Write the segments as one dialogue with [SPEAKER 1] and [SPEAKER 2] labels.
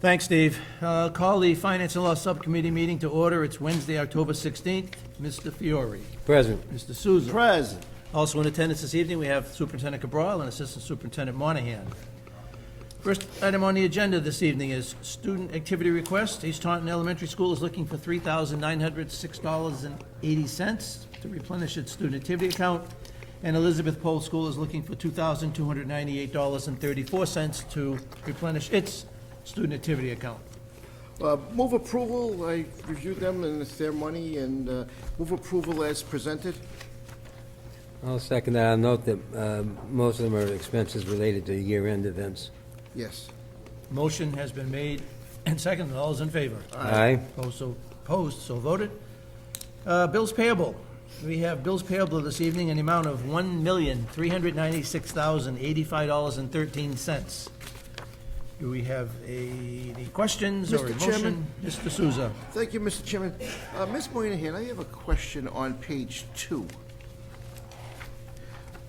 [SPEAKER 1] Thanks, Steve. Uh, Call the Finance and Law Subcommittee meeting to order. It's Wednesday, October 16th. Mr. Fiore,
[SPEAKER 2] Present.
[SPEAKER 1] Mr. Souza.
[SPEAKER 3] Present.
[SPEAKER 1] Also in attendance this evening, we have Superintendent Cabral and Assistant Superintendent Monahan. First item on the agenda this evening is student activity request. East Taunton Elementary School is looking for $3,906.80 to replenish its student activity account, and Elizabeth Pole School is looking for $2,298.34 to replenish its student activity account.
[SPEAKER 3] Uh, Move approval, I reviewed them, and it's their money, and uh, move approval as presented.
[SPEAKER 2] I'll second that. I'll note that um, most of them are expenses related to year-end events.
[SPEAKER 3] Yes.
[SPEAKER 1] Motion has been made and seconded. All is in favor?
[SPEAKER 2] Aye.
[SPEAKER 1] Opposed, so, opposed, so voted. Uh, Bills payable. We have bills payable this evening in the amount of $1,396,085.13. Do we have a, any questions or a motion?
[SPEAKER 3] Mr. Chairman?
[SPEAKER 1] Mr. Souza.
[SPEAKER 3] Thank you, Mr. Chairman. Uh, Ms. Moynihan, I have a question on page two.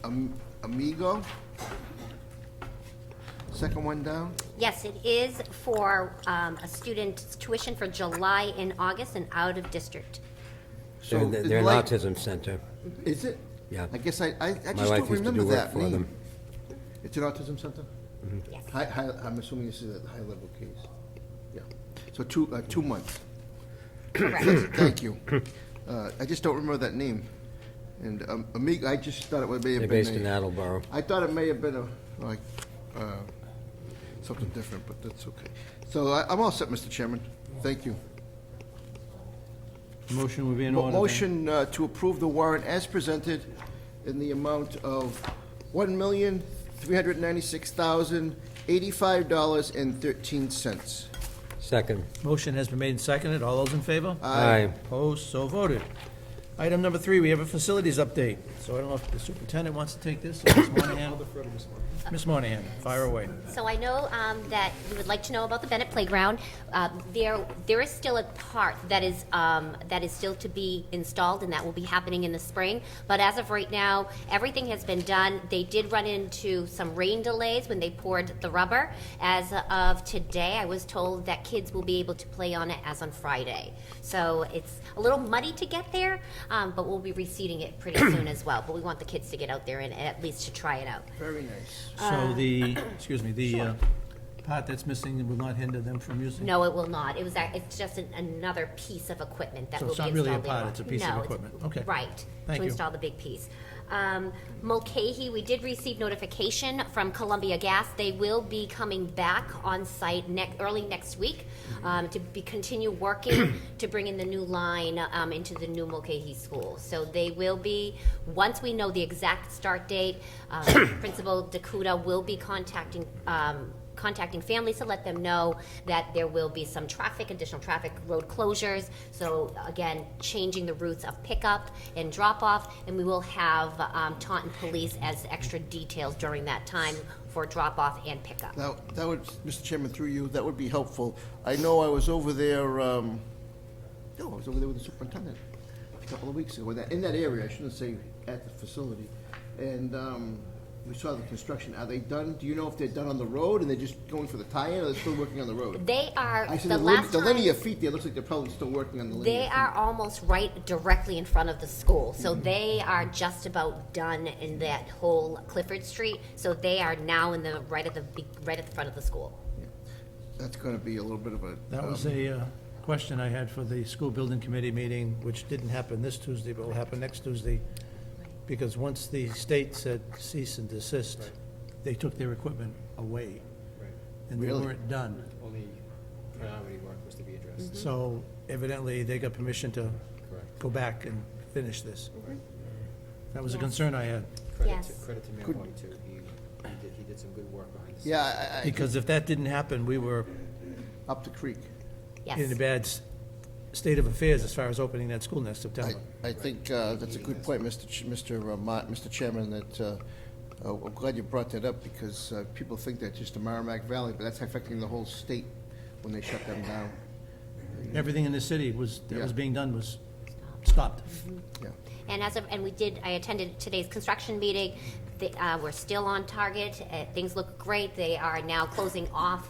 [SPEAKER 3] Am- Amigo? Second one down?
[SPEAKER 4] Yes, it is for um, a student's tuition for July and August and out of district.
[SPEAKER 3] So
[SPEAKER 2] They're they're an
[SPEAKER 3] like-
[SPEAKER 2] autism center.
[SPEAKER 3] Is it?
[SPEAKER 2] Yeah.
[SPEAKER 3] I guess I, I
[SPEAKER 2] My
[SPEAKER 3] I
[SPEAKER 2] wife
[SPEAKER 3] just don't
[SPEAKER 2] used to
[SPEAKER 3] remember
[SPEAKER 2] do work
[SPEAKER 3] that
[SPEAKER 2] for them. Mm-hmm.
[SPEAKER 3] name. It's an autism center?
[SPEAKER 4] Yes.
[SPEAKER 3] Hi, hi, I'm assuming this is a high-level case. Yeah. So two, uh, two months.
[SPEAKER 4] Correct.
[SPEAKER 3] Thank you. Uh, I just don't remember that name. And um, Amigo, I just thought it may have
[SPEAKER 2] They're
[SPEAKER 3] been.
[SPEAKER 2] based
[SPEAKER 3] a-
[SPEAKER 2] in Attleboro.
[SPEAKER 3] I thought it may have been a, like, uh, something different, but that's okay. So I- I'm all set, Mr. Chairman. Thank you.
[SPEAKER 1] Motion would be in order. then.
[SPEAKER 3] Motion uh, to approve the warrant as presented in the amount of $1,396,085.13.
[SPEAKER 2] Second.
[SPEAKER 1] Motion has been made and seconded. All those in favor?
[SPEAKER 2] Aye.
[SPEAKER 1] Opposed, so voted. Item number three, we have a facilities update. So I don't know if the superintendent wants to take this or Ms. Monahan. Ms. Monahan, fire away.
[SPEAKER 4] So I know um, that you would like to know about the Bennett Playground. Uh, There, there is still a part that is, um, that is still to be installed, and that will be happening in the spring. But as of right now, everything has been done. They did run into some rain delays when they poured the rubber. As of today, I was told that kids will be able to play on it as on Friday. So it's a little muddy to get there, um, but we'll be reseeding it pretty soon as well. But we want the kids to get out there and at least to try it out.
[SPEAKER 3] Very nice.
[SPEAKER 1] So the, excuse me, the uh, part that's missing will not hinder them from using?
[SPEAKER 4] No, it will not. It was, a- it's just an- another piece of equipment that
[SPEAKER 1] So
[SPEAKER 4] will be
[SPEAKER 1] it's not
[SPEAKER 4] installed
[SPEAKER 1] really
[SPEAKER 4] later
[SPEAKER 1] a
[SPEAKER 4] on.
[SPEAKER 1] pod, it's a piece of
[SPEAKER 4] No, it's-
[SPEAKER 1] equipment. Okay.
[SPEAKER 4] Right.
[SPEAKER 1] Thank you.
[SPEAKER 4] To install the big piece. Um, Mulcahy, we did receive notification from Columbia Gas. They will be coming back on site next, early next week
[SPEAKER 1] Mm-hmm.
[SPEAKER 4] um, to be, continue working to bring in the new line um, into the new Mulcahy School. So they will be, once we know the exact start date, um, Principal Dakuda will be contacting um, contacting families to let them know that there will be some traffic, additional traffic, road closures. So again, changing the routes of pickup and drop-off, and we will have um, Taunton Police as extra details during that time for drop-off and pickup.
[SPEAKER 3] Now, that would, Mr. Chairman, through you, that would be helpful. I know I was over there, um, no, I was over there with the superintendent a couple of weeks ago, in that, in that area, I shouldn't say at the facility. And, um, we saw the construction. Are they done? Do you know if they're done on the road and they're just going for the tie-in or they're still working on the road?
[SPEAKER 4] They are,
[SPEAKER 3] I see
[SPEAKER 4] the
[SPEAKER 3] lin-
[SPEAKER 4] last
[SPEAKER 3] The linear
[SPEAKER 4] time,
[SPEAKER 3] feet there, looks like they're probably still working on the linear.
[SPEAKER 4] they
[SPEAKER 3] feet.
[SPEAKER 4] are almost right directly in front of the school. So
[SPEAKER 3] Mm-hmm.
[SPEAKER 4] they are just about done in that whole Clifford Street. So they are now in the, right at the, be- right at the front of the school.
[SPEAKER 3] That's gonna be a little bit of a.
[SPEAKER 1] That was
[SPEAKER 3] um,
[SPEAKER 1] a uh, question I had for the school building committee meeting, which didn't happen this Tuesday, but will happen next Tuesday, because once the state said cease and desist, they took their equipment away. And they
[SPEAKER 3] Really?
[SPEAKER 1] weren't done.
[SPEAKER 5] only priority work was to be addressed.
[SPEAKER 1] So evidently, they got permission to go back and finish this. That was a
[SPEAKER 4] Yes.
[SPEAKER 1] concern I had,
[SPEAKER 5] Credit to,
[SPEAKER 4] Yes.
[SPEAKER 5] credit to Mayor White too, he, he did, he did some good work behind the scenes.
[SPEAKER 3] Yeah, I- I,
[SPEAKER 1] because if that didn't happen, we were
[SPEAKER 3] up the creek.
[SPEAKER 4] Yes.
[SPEAKER 1] in a bad s- state of affairs as far as opening that school next
[SPEAKER 3] I,
[SPEAKER 1] September.
[SPEAKER 3] I think uh, that's a good point, Mr. Ch- Mr. uh, Ma- Mr. Chairman, that, uh, uh, I'm glad you brought that up, because uh, people think that's just the Merrimack Valley, but that's affecting the whole state when they shut them down.
[SPEAKER 1] Everything in the city was, that was
[SPEAKER 3] Yeah.
[SPEAKER 1] being done was stopped.
[SPEAKER 3] Yeah.
[SPEAKER 4] And as of, and we did, I attended today's construction meeting. The, uh, we're still on target. Uh, things look great. They are now closing off